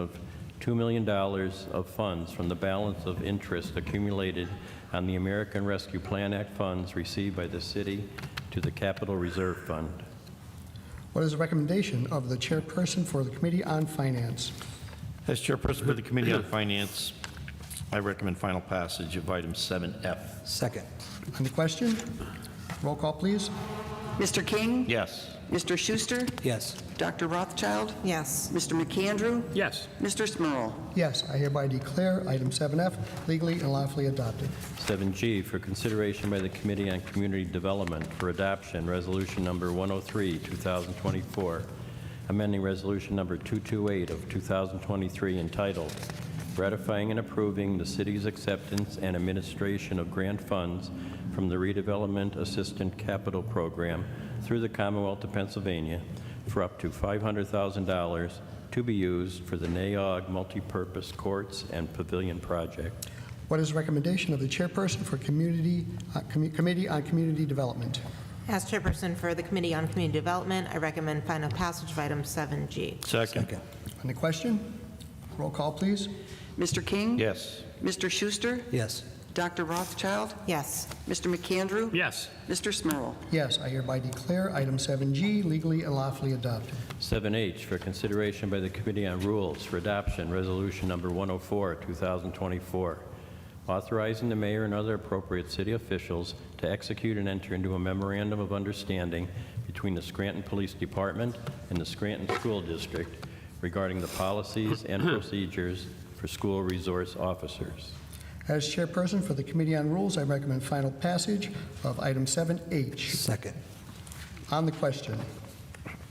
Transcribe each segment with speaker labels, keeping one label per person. Speaker 1: of $2 million of funds from the balance of interest accumulated on the American Rescue Plan Act funds received by the city to the Capital Reserve Fund.
Speaker 2: What is the recommendation of the chairperson for the Committee on Finance?
Speaker 3: As chairperson for the Committee on Finance, I recommend final passage of item 7F.
Speaker 4: Second.
Speaker 2: On the question? Roll call, please.
Speaker 5: Mr. King?
Speaker 3: Yes.
Speaker 5: Mr. Schuster?
Speaker 4: Yes.
Speaker 5: Dr. Rothschild?
Speaker 6: Yes.
Speaker 5: Mr. McAndrew?
Speaker 7: Yes.
Speaker 5: Mr. Smurl?
Speaker 2: Yes, I hereby declare item 7F legally and lawfully adopted.
Speaker 1: 7G for consideration by the Committee on Community Development for adoption, Resolution Number 103, 2024, amending Resolution Number 228 of 2023 entitled, "Ratifying and Approving the City's Acceptance and Administration of Grant Funds from the Redevelopment Assistant Capital Program through the Commonwealth of Pennsylvania for up to $500,000 to be used for the NAOG Multipurpose Courts and Pavilion Project."
Speaker 2: What is the recommendation of the chairperson for Community, uh, Commu- Committee on Community Development?
Speaker 6: As chairperson for the Committee on Community Development, I recommend final passage of item 7G.
Speaker 3: Second.
Speaker 2: On the question? Roll call, please.
Speaker 5: Mr. King?
Speaker 3: Yes.
Speaker 5: Mr. Schuster?
Speaker 4: Yes.
Speaker 5: Dr. Rothschild?
Speaker 6: Yes.
Speaker 5: Mr. McAndrew?
Speaker 7: Yes.
Speaker 5: Mr. Smurl?
Speaker 2: Yes, I hereby declare item 7G legally and lawfully adopted.
Speaker 1: 7H for consideration by the Committee on Rules for Adoption, Resolution Number 104, 2024, authorizing the mayor and other appropriate city officials to execute and enter into a memorandum of understanding between the Scranton Police Department and the Scranton School District regarding the policies and procedures for school resource officers.
Speaker 2: As chairperson for the Committee on Rules, I recommend final passage of item 7H.
Speaker 4: Second.
Speaker 2: On the question?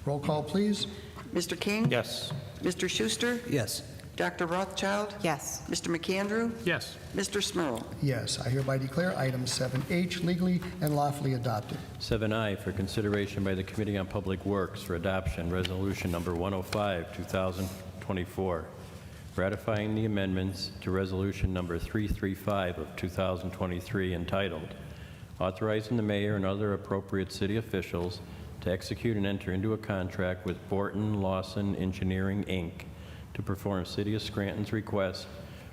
Speaker 2: Roll call, please.
Speaker 5: Mr. King?
Speaker 3: Yes.
Speaker 5: Mr. Schuster?
Speaker 4: Yes.
Speaker 5: Dr. Rothschild?
Speaker 6: Yes.
Speaker 5: Mr. McAndrew?
Speaker 7: Yes.
Speaker 5: Mr. Smurl?
Speaker 2: Yes, I hereby declare item 7H legally and lawfully adopted.
Speaker 1: 7I for consideration by the Committee on Public Works for adoption, Resolution Number 105, 2024, ratifying the amendments to Resolution Number 335 of 2023 entitled, "Authorizing the Mayor and Other Appropriate City Officials to Execute and Enter into a Contract with Borton Lawson Engineering, Inc. to Perform City of Scranton's Request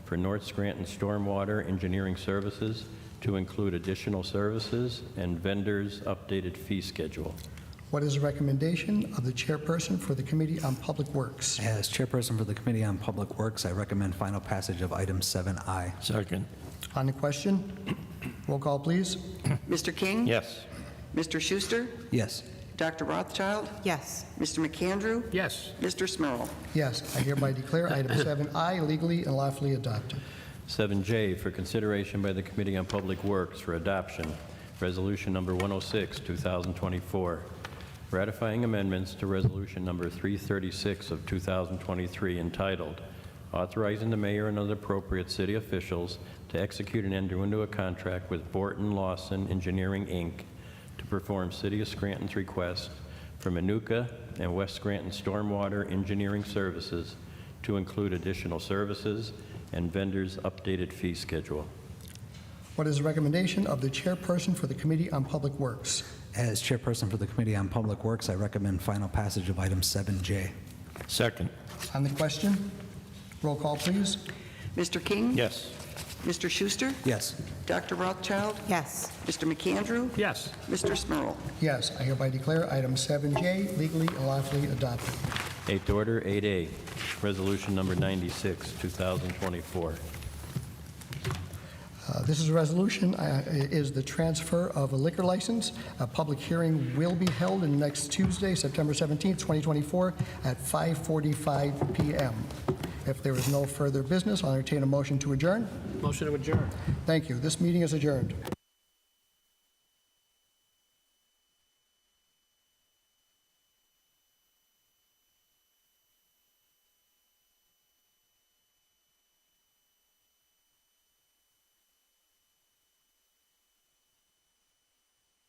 Speaker 1: for North Scranton Stormwater Engineering Services to include additional services and vendors' updated fee schedule.
Speaker 2: What is the recommendation of the chairperson for the Committee on Public Works?
Speaker 4: As chairperson for the Committee on Public Works, I recommend final passage of item 7I.
Speaker 3: Second.
Speaker 2: On the question? Roll call, please.
Speaker 5: Mr. King?
Speaker 3: Yes.
Speaker 5: Mr. Schuster?
Speaker 4: Yes.
Speaker 5: Dr. Rothschild?
Speaker 6: Yes.
Speaker 5: Mr. McAndrew?
Speaker 7: Yes.
Speaker 5: Mr. Smurl?
Speaker 2: Yes, I hereby declare item 7I legally and lawfully adopted.
Speaker 1: 7J for consideration by the Committee on Public Works for adoption, Resolution Number 106, 2024, ratifying amendments to Resolution Number 336 of 2023 entitled, "Authorizing the Mayor and Other Appropriate City Officials to Execute and Enter into a Contract with Borton Lawson Engineering, Inc. to Perform City of Scranton's Request for Manuka and West Scranton Stormwater Engineering Services to include additional services and vendors' updated fee schedule.
Speaker 2: What is the recommendation of the chairperson for the Committee on Public Works?
Speaker 4: As chairperson for the Committee on Public Works, I recommend final passage of item 7J.
Speaker 3: Second.
Speaker 2: On the question? Roll call, please.
Speaker 5: Mr. King?
Speaker 3: Yes.
Speaker 5: Mr. Schuster?
Speaker 4: Yes.
Speaker 5: Dr. Rothschild?
Speaker 6: Yes.
Speaker 5: Mr. McAndrew?
Speaker 7: Yes.
Speaker 5: Mr. Smurl?
Speaker 2: Yes, I hereby declare item 7J legally and lawfully adopted.
Speaker 1: Eighth Order, 8A, Resolution Number 96, 2024.
Speaker 2: Uh, This is a resolution, uh, is the transfer of a liquor license. A public hearing will be held in next Tuesday, September 17th, 2024, at 5:45 PM. If there is no further business, I'll entertain a motion to adjourn.
Speaker 7: Motion to adjourn.
Speaker 2: Thank you. This meeting is adjourned.